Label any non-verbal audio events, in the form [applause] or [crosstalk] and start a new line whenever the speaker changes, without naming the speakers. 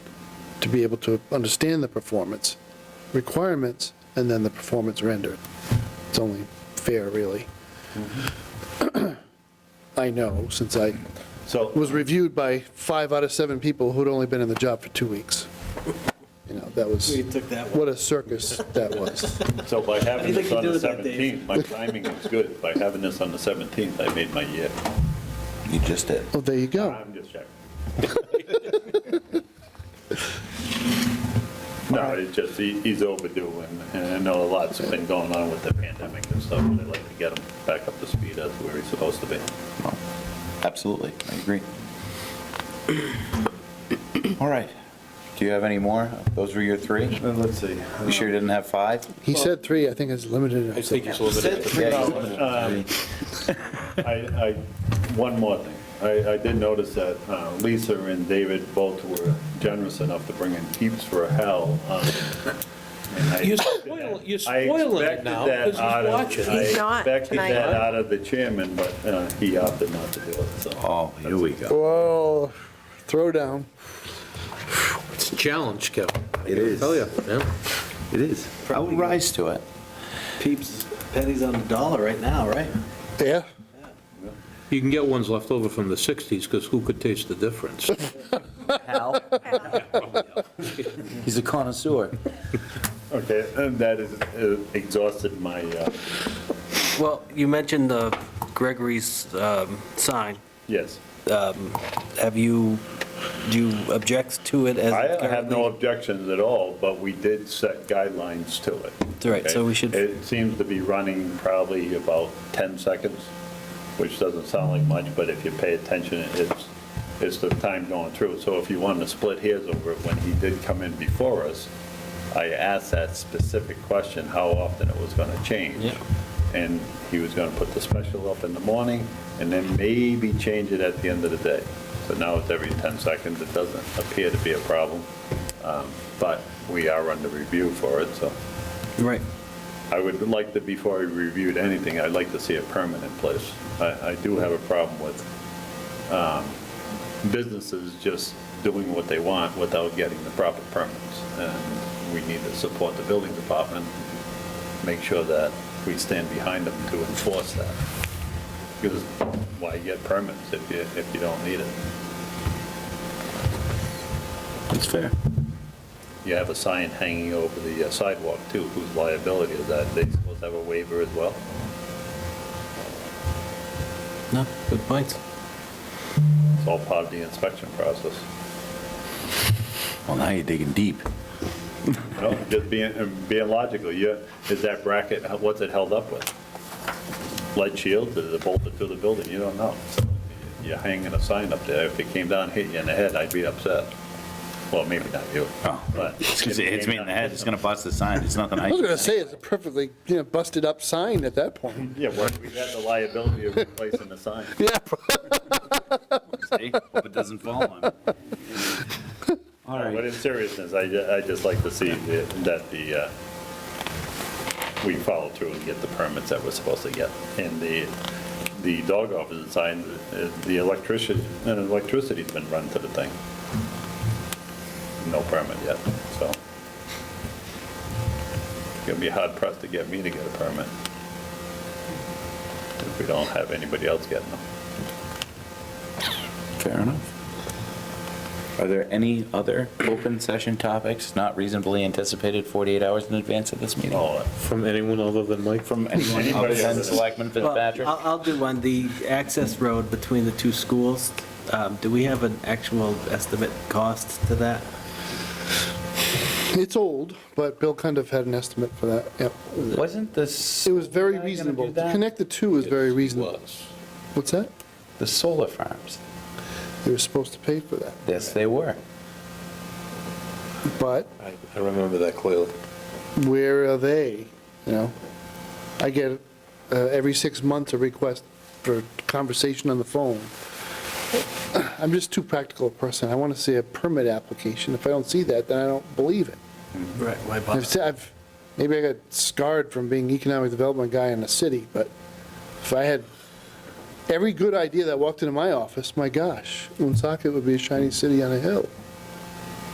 to be able to understand the performance requirements and then the performance rendered. It's only fair, really. [clears throat] I know, since I
So,
was reviewed by five out of seven people who'd only been in the job for two weeks. You know, that was,
We took that
what
one.
a circus that was.
so by having
do you
this
think
on
you
the
do with that, Dave?
17th, my timing is good. By having this on the 17th, I made my year.
You just did.
Well, there you
Uh,
go.
I'm just
[laughs]
checking. No, it's just, he- he's overdue, and- and I know a lot's been going on with the pandemic and stuff, and I'd like to get him back up to speed as where he's supposed to be.
Absolutely, I agree. All right. Do you have any more? Those were your three?
Let's see.
You sure you didn't have five?
He said three, I think it's limited.
I think it's a little bit,
Yeah,
No,
you limited to
um,
three.
[laughs] I, I, one more thing. I, I did notice that uh, Lisa and David both were generous enough to bring in keeps for hell. um, and I
You're
expected
spoil-
that-
you're spoiling it
I expected
now,
that
'cause he's
out of-
watching.
I
He's not
expected
tonight.
that out of the chairman, but uh, he opted not to do it, so.
Oh, here we go.
Whoa, throwdown.
it's a challenge, Kevin. I
It is.
Tell you, Oh, yeah.
It is. I will rise to it.
Peeps, pennies on the dollar right now, right?
Yeah.
You can get ones left over from the 60s, because who could taste the difference?
Hal? He's a connoisseur.
Okay, and that is uh, exhausted my, uh,
Well, you mentioned the Gregory's um, sign.
yes.
Have you, do you object to it as?
I have no
currently-
objections at all, but we did set guidelines to it.
Right, so
okay?
we should-
It seems to be running probably about 10 seconds, which doesn't sound like much, but if you pay attention, it's, it's the time going through. So if you wanted to split hairs over it, when he did come in before us, I asked that specific question, how often it was going to change.
Yeah.
And he was going to put the special up in the morning and then maybe change it at the end of the day. So now it's every 10 seconds. It doesn't appear to be a problem, Um, but we are under review for it, so
Right.
I would like to, before I reviewed anything, I'd like to see a permanent place. I, I do have a problem with um, businesses just doing what they want without getting the proper permits. And we need to support the building department, make sure that we stand behind them to enforce that. Because why get permits if you, if you don't need it?
That's fair.
You have a sign hanging over the uh, sidewalk too, whose liability is that? They supposed to have a waiver as well?
No, good points.
It's all part of the inspection process.
[laughs] Well, now you're digging deep.
[laughs] No, just being, being logical, you, is that bracket, what's it held up with? Lead shield, is it bolted to the building, you don't know. You're hanging a sign up there, if it came down, and hit you in the head, I'd be upset. Well, maybe not you,
Oh. [laughs]
but.
It's 'cause it hits me in the head, it's gonna bust the sign, it's nothing I.
I was gonna say, it's a perfectly, you know, busted up sign at that point.
Yeah, well, we had the liability of replacing the sign.
Yeah.
See? Hope it doesn't fall on me. All
But
right.
in seriousness, I, ju- I just like to see the- that the, uh, we follow through and get the permits that we're supposed to get. And the, the dog office sign, uh, the electrician, and electricity's been run to the thing. No permit yet, so. It's gonna be hard pressed to get me to get a permit. If we don't have anybody else getting them.
Fair enough. Are there any other open session topics not reasonably anticipated 48 hours in advance of this meeting?
Oh,
From anyone other than Mike?
From anyone other
Anybody other
than
than-
Selectman
Well,
Fitzpatrick?
I'll, I'll do one, the access road between the two schools, um, do we have an actual estimate cost to that?
It's old, but Bill kind of had an estimate for that, yeah.
Wasn't this,
It was very
gonna do
reasonable. To
that?
connect the two is very reasonable.
Was.
What's that?
the solar farms?
They were supposed to pay for that,
Yes, they were.
but
I I remember that clearly.
where are they? You know, I get uh, every six months a request for conversation on the phone. [clears throat] I'm just too practical a person. I want to see a permit application. If I don't see that, then I don't believe it.
Right, why
I've, se- I've, maybe I got scarred from being economic development guy in the city, but if I had every good idea that walked into my office, my gosh, Woonsocket would be a shiny city on a hill.